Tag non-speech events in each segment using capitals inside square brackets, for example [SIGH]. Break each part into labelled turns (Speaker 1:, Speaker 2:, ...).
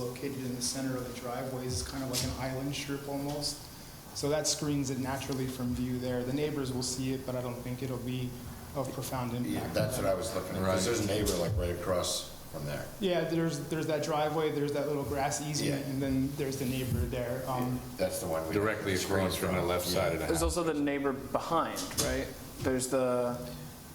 Speaker 1: located in the center of the driveway is kind of like an island strip almost. So that screens it naturally from view there. The neighbors will see it, but I don't think it'll be of profound
Speaker 2: Yeah,
Speaker 1: impact.
Speaker 2: that's what I was looking at, because
Speaker 3: Right.
Speaker 2: there's a neighbor like right across from there.
Speaker 1: Yeah, there's, there's that driveway, there's that little grass easement,
Speaker 2: Yeah.
Speaker 1: and then there's the neighbor there. Um,
Speaker 2: That's the one we.
Speaker 3: Directly across from the left side of the
Speaker 4: There's
Speaker 3: house.
Speaker 4: also the neighbor behind, right? There's the,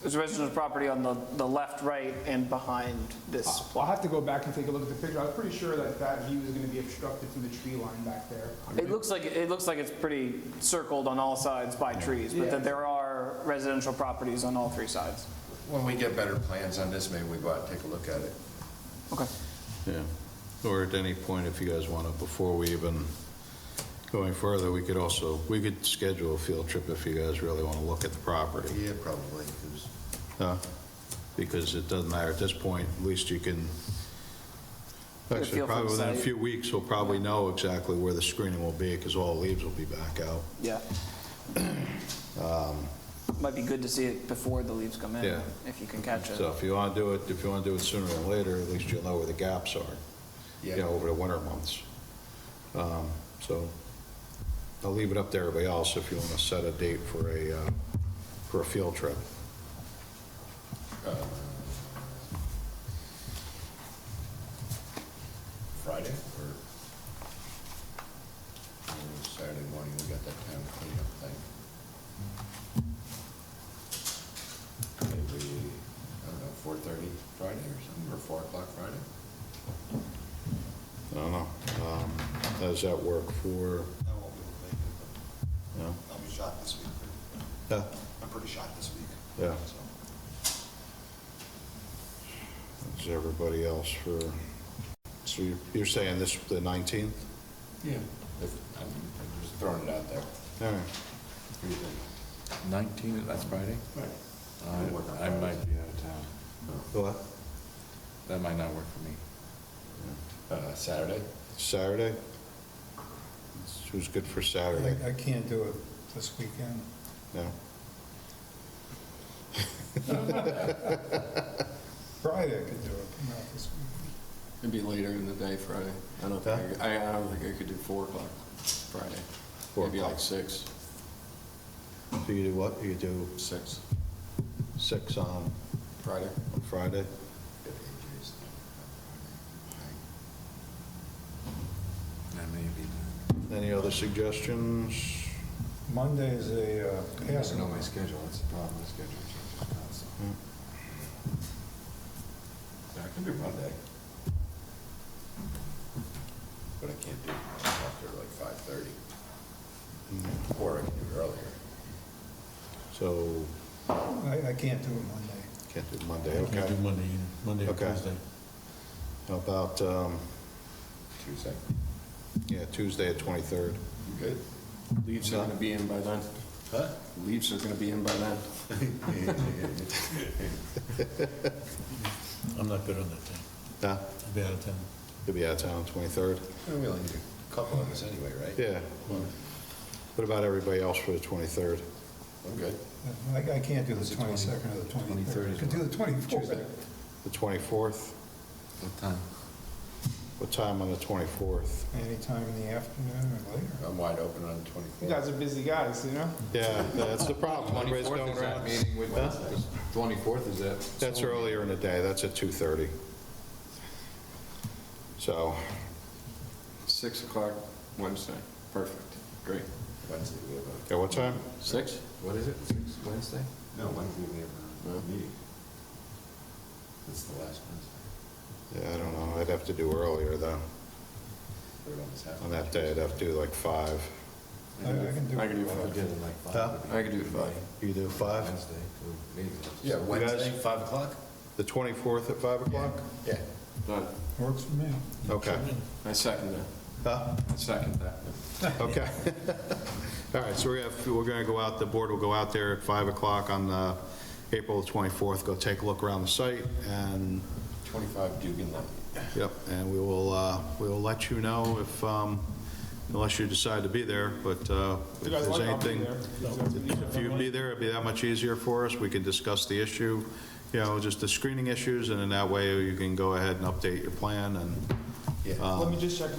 Speaker 4: there's residential property on the, the left, right, and behind this
Speaker 5: Ah,
Speaker 1: I'll
Speaker 4: plot.
Speaker 1: have to go back and take a look at the picture. I was pretty sure that that view is going to be obstructed from the tree line back there.
Speaker 4: It looks like, it looks like it's pretty circled on all sides by trees, but that there are residential properties on all three sides.
Speaker 2: When we get better plans on this, maybe we go out and take a look at it.
Speaker 4: Okay.
Speaker 5: Yeah, or at any point, if you guys want to, before we even going further, we could also, we could schedule a field trip if you guys really want to look at the property.
Speaker 2: Yeah, probably, 'cause-
Speaker 5: huh? Because it doesn't matter, at this point, at least you can,
Speaker 4: a
Speaker 5: actually,
Speaker 4: feel for
Speaker 5: probably
Speaker 4: the
Speaker 5: within a
Speaker 4: site.
Speaker 5: few weeks, we'll probably know exactly where the screening will be, because all the leaves will be back out.
Speaker 4: Yeah. Might be good to see it before the leaves come in,
Speaker 5: Um, Yeah.
Speaker 4: if you can catch it.
Speaker 5: So if you want to do it, if you want to do it sooner than later, at least you'll know where the gaps are, you know,
Speaker 2: yeah,
Speaker 5: over the winter months. Um, So I'll leave it up to everybody else if you want to set a date for a, uh, for a field trip.
Speaker 2: Friday or or Saturday morning, we got that town cleanup thing. Maybe, I don't know, 4:30 Friday or something, or 4 o'clock Friday?
Speaker 5: I don't know. Um, How does that work
Speaker 6: I
Speaker 5: for,
Speaker 6: won't be able to make it,
Speaker 5: you know?
Speaker 6: but I'll be shot this week.
Speaker 5: Yeah,
Speaker 6: I'm pretty shot this week.
Speaker 5: Yeah.
Speaker 6: So,
Speaker 5: Is everybody else for, so you're- you're saying this, the 19th?
Speaker 2: Yeah. If- I'm I'm just throwing it out there.
Speaker 5: All right.
Speaker 2: What do you think?
Speaker 3: 19, that's Friday?
Speaker 2: I work on
Speaker 3: I might be out of town.
Speaker 5: What?
Speaker 3: That might not work for me.
Speaker 2: Uh, Saturday?
Speaker 5: Saturday? Who's good for Saturday?
Speaker 7: I I can't do it this weekend.
Speaker 5: No?
Speaker 7: Friday I could do it, but not this weekend.
Speaker 8: It'd be later in the day Friday. I don't think, I could- I I don't think I could do 4 o'clock Friday.
Speaker 5: Four
Speaker 8: Maybe like
Speaker 5: o'clock.
Speaker 8: 6,
Speaker 5: So you do what? You do
Speaker 8: 6
Speaker 5: six on
Speaker 8: Friday.
Speaker 5: on Friday?
Speaker 3: That may be.
Speaker 5: Any other suggestions?
Speaker 7: Monday is a uh,
Speaker 8: I don't know
Speaker 7: Passover.
Speaker 8: my schedule, that's the problem, the schedule changes constantly.
Speaker 2: Yeah, I can do Monday. But I can't do it after like five thirty. Or I can do it earlier.
Speaker 5: So,
Speaker 7: I, I can't do it Monday.
Speaker 5: can't do Monday, okay? Can't do Monday Monday Tuesday. How about, um,
Speaker 2: Tuesday.
Speaker 5: yeah, Tuesday at 23rd?
Speaker 2: You good?
Speaker 8: Leaves are going to be in by then.
Speaker 2: Huh?
Speaker 8: Leaves are going to be in by then.
Speaker 9: I'm not good on that thing.
Speaker 5: Huh?
Speaker 9: I'll be out of town.
Speaker 5: You'll be out of town 23rd?
Speaker 2: Well, We only need a couple of us anyway, right?
Speaker 5: Yeah. What about everybody else for the 23rd?
Speaker 2: I'm good.
Speaker 7: I, I can't do the
Speaker 8: Is it 20
Speaker 7: 22nd or the
Speaker 8: 23rd
Speaker 7: 23rd. I
Speaker 8: is
Speaker 7: could do
Speaker 8: what?
Speaker 7: the 24th.
Speaker 8: Tuesday.
Speaker 5: The 24th?
Speaker 8: What time?
Speaker 5: What time on the 24th?
Speaker 7: Anytime in the afternoon or later.
Speaker 2: I'm wide open on the
Speaker 1: You
Speaker 2: twenty-fourth.
Speaker 1: guys are busy guys, you know?
Speaker 5: Yeah, that's the problem. Everybody's
Speaker 3: 24th
Speaker 5: going
Speaker 3: is that
Speaker 5: around.
Speaker 3: meeting with,
Speaker 5: Huh?
Speaker 3: 24th is that?
Speaker 5: That's earlier in the day, that's at 2:30. So,
Speaker 8: 6 o'clock Wednesday. Perfect. Great.
Speaker 2: Wednesday, we have
Speaker 5: yeah, what time?
Speaker 8: 6?
Speaker 2: a. What is it? Six?
Speaker 8: Wednesday?
Speaker 2: No, Wednesday, we have
Speaker 8: No.
Speaker 2: a meeting. It's the last Wednesday.
Speaker 5: Yeah, I don't know, I'd have to do earlier though.
Speaker 2: Third on this half.
Speaker 5: On that day, I'd have to do like 5.
Speaker 7: I I can do
Speaker 8: I
Speaker 7: it.
Speaker 8: could do 5.
Speaker 5: Huh?
Speaker 8: I could do 5.
Speaker 5: You do 5?
Speaker 2: Yeah, Wednesday,
Speaker 5: guys-
Speaker 2: five o'clock?
Speaker 5: The 24th at 5 o'clock?
Speaker 2: Yeah.
Speaker 8: Done.
Speaker 7: Works for me.
Speaker 5: Okay.
Speaker 8: I second that.
Speaker 5: Huh?
Speaker 8: I second that.
Speaker 5: Okay. [LAUGHS] All right, so we're gonna, we're gonna go out, the board will go out there at 5 o'clock on uh, April 24th, go take a look around the site, and,
Speaker 2: Twenty-five Dugan Lane.
Speaker 5: yep, and we will, uh, we will let you know if, um, unless you decide to be there, but uh,
Speaker 1: You
Speaker 5: if
Speaker 1: guys
Speaker 5: there's
Speaker 1: like, I'll be
Speaker 5: anything.
Speaker 1: there. You guys can-
Speaker 5: If you'd be there, it'd be that much easier for us, we can discuss the issue, you know, just the screening issues, and in that way, you can go ahead and update your plan, and
Speaker 2: Yeah.
Speaker 1: Let me just check